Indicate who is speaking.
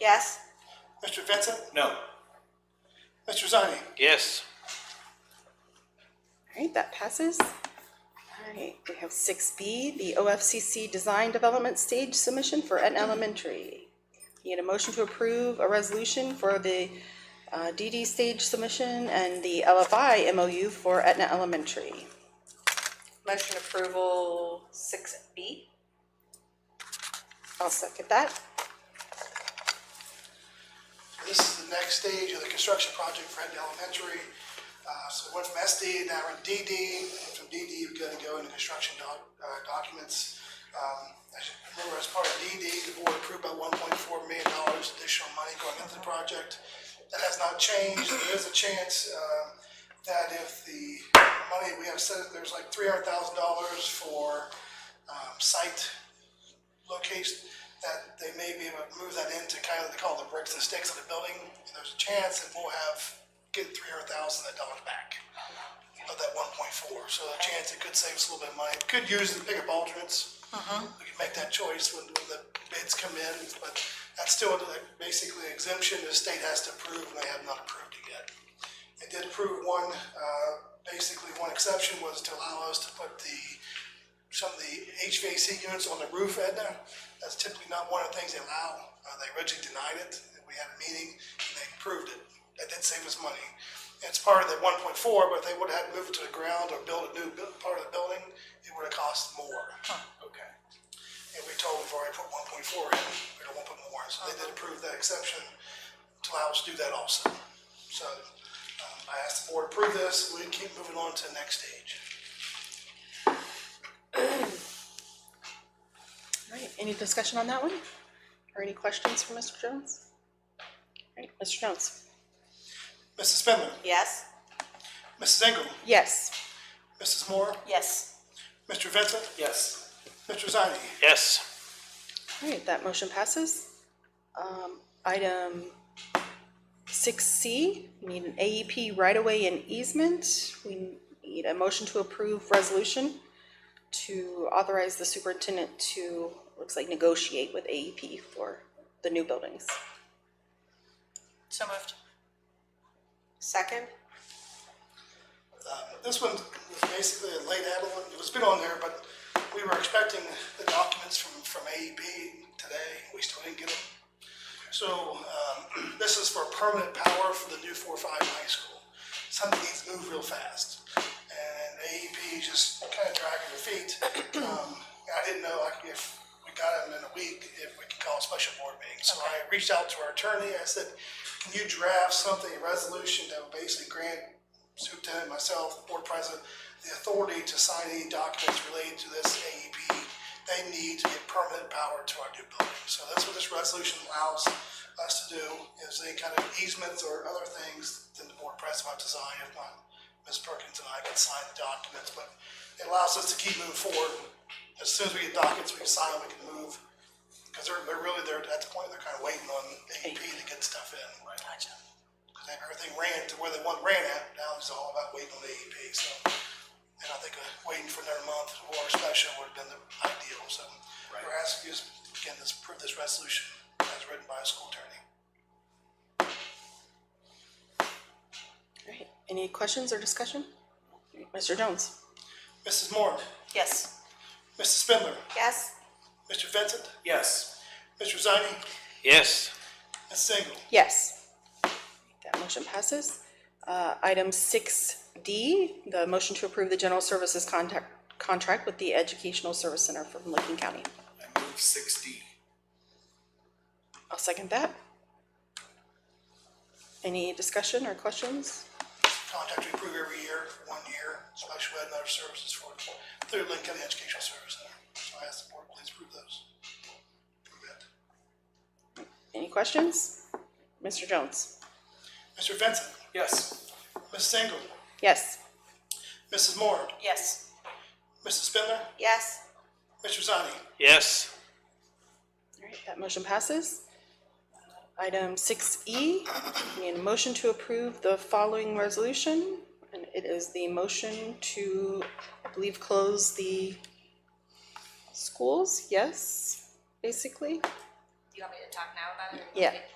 Speaker 1: Yes.
Speaker 2: Mr. Vincent?
Speaker 3: No.
Speaker 2: Mr. Zani?
Speaker 3: Yes.
Speaker 4: All right, that passes. All right, we have six B, the OFCC Design Development Stage Submission for Etna Elementary. Need a motion to approve a resolution for the uh, DD stage submission and the LFI MOU for Etna Elementary.
Speaker 1: Motion approval six B.
Speaker 4: I'll second that.
Speaker 2: This is the next stage of the construction project for Hendon Elementary. Uh, so we're from SD, now we're in DD, and from DD, we're gonna go into construction doc, uh, documents. Um, as you remember, as part of DD, the board approved about one point four million dollars additional money going into the project. That has not changed, there is a chance, um, that if the money, we have said, there's like three hundred thousand dollars for, um, site location that they may be able to move that into kind of they call the bricks and sticks of the building. And there's a chance that we'll have get three hundred thousand of that dollars back of that one point four. So the chance it could save us a little bit of money. Could use the bigger alternates. We can make that choice when, when the bids come in, but that's still like basically exemption the state has to approve and they have not approved it yet. It did approve one, uh, basically one exception was to allow us to put the some of the HVAC units on the roof, Edna. That's typically not one of the things they allow. Uh, they originally denied it. and We had a meeting and they approved it. That did save us money. It's part of the one point four, but if they would have had to move it to the ground or build a new bu- part of the building, it would have cost more.
Speaker 3: Okay.
Speaker 2: And we told them we've already put one point four in, we don't want to put more. So they did approve that exception to allow us to do that also. So, um, I asked the board to approve this. We keep moving on to the next stage.
Speaker 4: All right, any discussion on that one? Or any questions for Mr. Jones? All right, Mr. Jones?
Speaker 2: Mrs. Spindler,
Speaker 1: Yes.
Speaker 2: Mrs. Engel,
Speaker 4: Yes.
Speaker 2: Mrs. Moore,
Speaker 1: Yes.
Speaker 2: Mr. Vincent,
Speaker 3: Yes.
Speaker 2: Mr. Zani,
Speaker 3: Yes.
Speaker 4: All right, that motion passes. Um, item six C, we need an E AEP right-of-way and easement. We need a motion to approve resolution to authorize the superintendent to, looks like negotiate with AEP for the new buildings.
Speaker 1: So moved. Second.
Speaker 2: Uh, This one was basically a late add one. It was been on there, but we were expecting the documents from, from AEB today. We still didn't get them. So, um, this is for permanent power for the new four, five high school. Something needs to move real fast. And AEP just kind of dragging their feet. Um, I didn't know like if we got them in a week, if we could call a special board meeting. So I reached out to our attorney. I said, can you draft something, a resolution that would basically grant superintendent, myself, the board president, the authority to sign any documents related to this AEP. They need to get permanent power to our new building. So that's what this resolution allows us to do, is any kind of easements or other things that the board president might design, if not, Ms. Perkins and I can sign the documents, but it allows us to keep moving forward. As soon as we get documents, we can sign them, we can move, because they're, they're really, they're, at the point, they're kind of waiting on AEP to get stuff in. Gotcha. Because they have everything ran to where they want ran at, now it's all about waiting on the AEP, so. And I think uh, waiting for another month or special would have been the ideal, so. We're asking you, to, again, this, approve this resolution as written by a school attorney.
Speaker 4: All right, any questions or discussion? All right, Mr. Jones?
Speaker 2: Mrs. Moore,
Speaker 1: Yes.
Speaker 2: Mrs. Spindler,
Speaker 1: Yes.
Speaker 2: Mr. Vincent,
Speaker 3: Yes.
Speaker 2: Mr. Zani,
Speaker 3: Yes.
Speaker 2: Ms. Single.
Speaker 4: Yes. That motion passes. Uh, Item six D, the motion to approve the general services contact, contract with the Educational Service Center from Licking County.
Speaker 3: I move six D.
Speaker 4: I'll second that. Any discussion or questions?
Speaker 2: Contract we approve every year, for one year, special ed and other services for, through Lincoln County Educational Service Center. So I ask the board, please approve those. Approve it.
Speaker 4: Any questions? Mr. Jones?
Speaker 2: Mr. Vincent,
Speaker 3: Yes.
Speaker 2: Ms. Single,
Speaker 4: Yes.
Speaker 2: Mrs. Moore,
Speaker 1: Yes.
Speaker 2: Mrs. Spindler,
Speaker 1: Yes.
Speaker 2: Mr. Zani,
Speaker 3: Yes.
Speaker 4: All right, that motion passes. Item six E, we need a motion to approve the following resolution. And it is the motion to, I believe, close the schools, yes, basically?
Speaker 5: Do you want me to talk now about it? or you want
Speaker 4: Yeah,
Speaker 5: me to-